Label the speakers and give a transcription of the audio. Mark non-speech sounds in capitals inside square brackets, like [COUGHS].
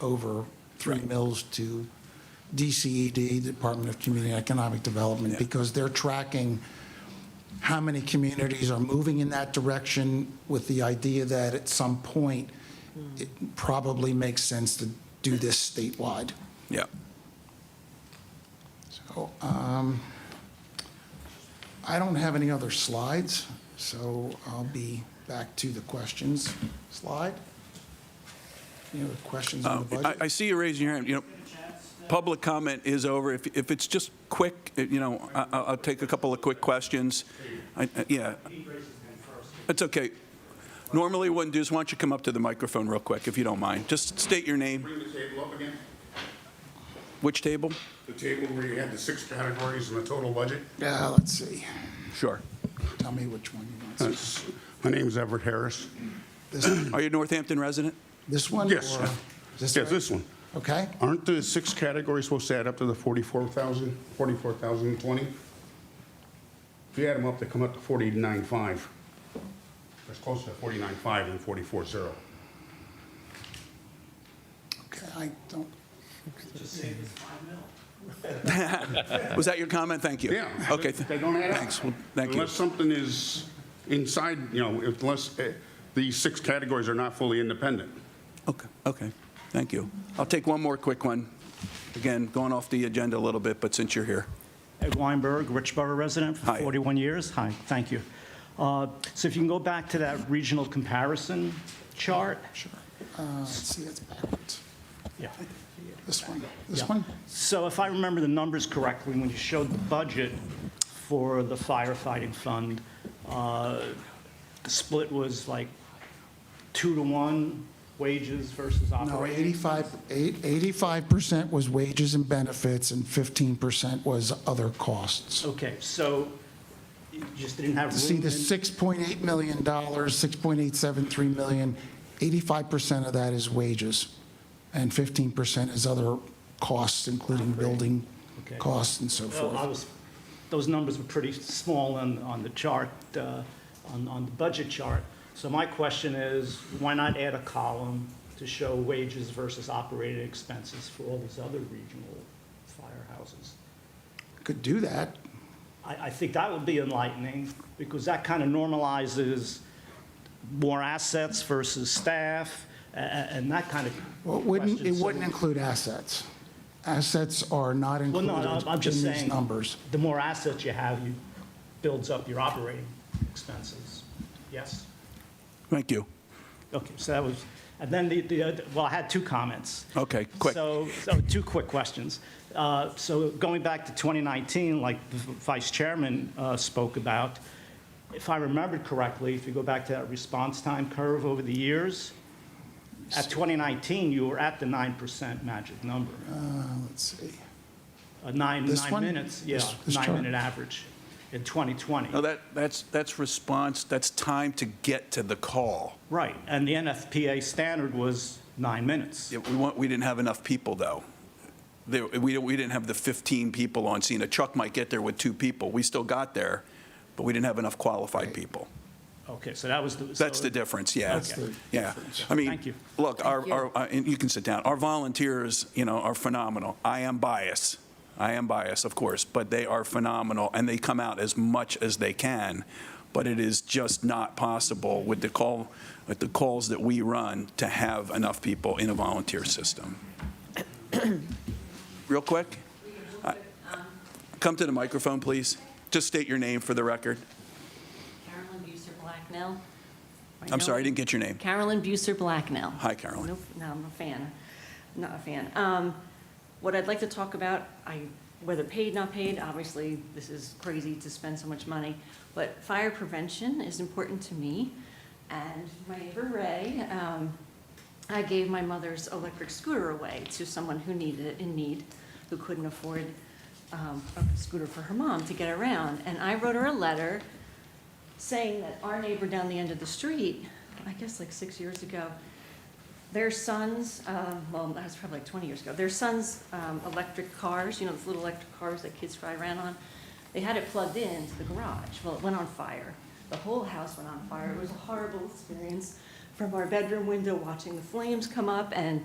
Speaker 1: over three mills to DCED, Department of Community and Economic Development, because they're tracking how many communities are moving in that direction with the idea that at some point, it probably makes sense to do this statewide.
Speaker 2: Yeah.
Speaker 1: So, um, I don't have any other slides, so I'll be back to the questions slide. Any other questions on the
Speaker 2: Um, I,
Speaker 1: budget?
Speaker 2: I see you raising your hand. You know, public comment is over. If, if it's just quick, you know, I, I'll I'll take a couple of quick questions. I, I- yeah. It's okay. Normally, what I do is, why don't you come up to the microphone real quick, if you don't mind? Just state your name,
Speaker 3: Bring the table up again,
Speaker 2: which table?
Speaker 3: the table where you had the six categories and the total budget.
Speaker 1: Yeah, let's see.
Speaker 2: Sure.
Speaker 1: Tell me which one you want.
Speaker 3: Uh, s- My name's Everett Harris.
Speaker 1: This,
Speaker 2: Are you a Northampton resident?
Speaker 1: this one?
Speaker 3: Yes.
Speaker 1: or- This
Speaker 3: Yes,
Speaker 1: one?
Speaker 3: this one.
Speaker 1: Okay,
Speaker 3: Aren't the six categories supposed to add up to the 44,000, 44,020? If you add them up, they come up to 49.5. That's closer to 49.5 than 44.0.
Speaker 1: okay, I don't,
Speaker 2: Was that your comment? Thank you.
Speaker 3: Yeah.
Speaker 2: Okay.
Speaker 3: They don't add up.
Speaker 2: Thanks. Well, Thank you.
Speaker 3: Unless something is inside, you know, if- unless eh, these six categories are not fully independent.
Speaker 2: Okay, okay, thank you. I'll take one more quick one. Again, going off the agenda a little bit, but since you're here.
Speaker 4: Ed Weinberg, Richborough resident for
Speaker 2: Hi.
Speaker 4: 41 years. Hi, thank you. Uh, So if you can go back to that regional comparison chart? Sure.
Speaker 1: uh, let's see, it's backwards.
Speaker 4: Yeah.
Speaker 1: This one, this
Speaker 4: Yeah.
Speaker 1: one?
Speaker 4: So if I remember the numbers correctly, when you showed the budget for the firefighting fund, uh, the split was like two to one wages versus
Speaker 1: No,
Speaker 4: operating?
Speaker 1: 85, eight- 85% was wages and benefits, and 15% was other costs.
Speaker 4: Okay, so you just didn't have room?
Speaker 1: See, the
Speaker 4: in-
Speaker 1: $6.8 million, 6.873 million, 85% of that is wages, and 15% is other costs, including building
Speaker 4: Okay.
Speaker 1: costs and so
Speaker 4: Well, I
Speaker 1: forth.
Speaker 4: was, those numbers were pretty small on, on the chart, uh, on, on the budget chart. So my question is, why not add a column to show wages versus operating expenses for all these other regional firehouses?
Speaker 1: Could do that.
Speaker 4: I, I think that would be enlightening, because that kind of normalizes more assets versus staff, a- a- and that kind of
Speaker 1: Well, it wouldn't,
Speaker 4: question.
Speaker 1: it
Speaker 4: So-
Speaker 1: wouldn't include assets. Assets are not
Speaker 4: Well,
Speaker 1: included
Speaker 4: no, I'm- I'm
Speaker 1: in
Speaker 4: just
Speaker 1: these
Speaker 4: saying.
Speaker 1: numbers.
Speaker 4: The more assets you have, you builds up your operating expenses. Yes?
Speaker 2: Thank you.
Speaker 4: Okay, so that was, and then the, the, other- well, I had two comments.
Speaker 2: Okay, quick.
Speaker 4: So, so two quick questions. Uh, So going back to 2019, like the vice chairman uh, spoke about, if I remembered correctly, if you go back to that response time curve over the years, at 2019, you were at the 9% magic number,
Speaker 1: Uh, Let's see.
Speaker 4: Uh, nine,
Speaker 1: This
Speaker 4: nine
Speaker 1: one?
Speaker 4: minutes, yeah,
Speaker 1: This- this chart?
Speaker 4: nine-minute average in 2020.
Speaker 2: No, Oh, that, that's, that's response, that's time to get to the call.
Speaker 4: Right, and the NFPA standard was nine minutes.
Speaker 2: Yeah, We want, we didn't have enough people, though. There, we, don't- we didn't have the 15 people on scene. A truck might get there with two people. We still got there, but we didn't have enough qualified people.
Speaker 4: Okay, so that was the.
Speaker 2: That's
Speaker 4: so-
Speaker 2: the difference, yeah.
Speaker 1: That's the
Speaker 2: Yeah. I mean,
Speaker 4: Thank you.
Speaker 2: look, our, our, uh, and you can sit down. Our volunteers, you know, are phenomenal. I am biased. I am biased, of course, but they are phenomenal, and they come out as much as they can. But it is just not possible with the call, with the calls that we run, to have enough people in a volunteer
Speaker 4: [COUGHS]
Speaker 2: system. Real quick, I- come to the microphone, please. Just state your name for the record.
Speaker 5: Carolyn Bucer Blacknell.
Speaker 2: I'm sorry, I didn't get your name.
Speaker 5: Carolyn Bucer Blacknell.
Speaker 2: Hi, Carolyn.
Speaker 5: Nope, no, I'm a fan, not a fan. Um, What I'd like to talk about, I, whether paid, not paid, obviously, this is crazy to spend so much money, but fire prevention is important to me. And my neighbor Ray, um, I gave my mother's electric scooter away to someone who needed it, in need, who couldn't afford um, a scooter for her mom to get around. And I wrote her a letter saying that our neighbor down the end of the street, I guess like six years ago, their sons, uh, well, that was probably like 20 years ago, their sons' um, electric cars, you know, those little electric cars that kids probably ran on, they had it plugged in to the garage. Well, it went on fire. The whole house went on fire. It was a horrible experience from our bedroom window watching the flames come up and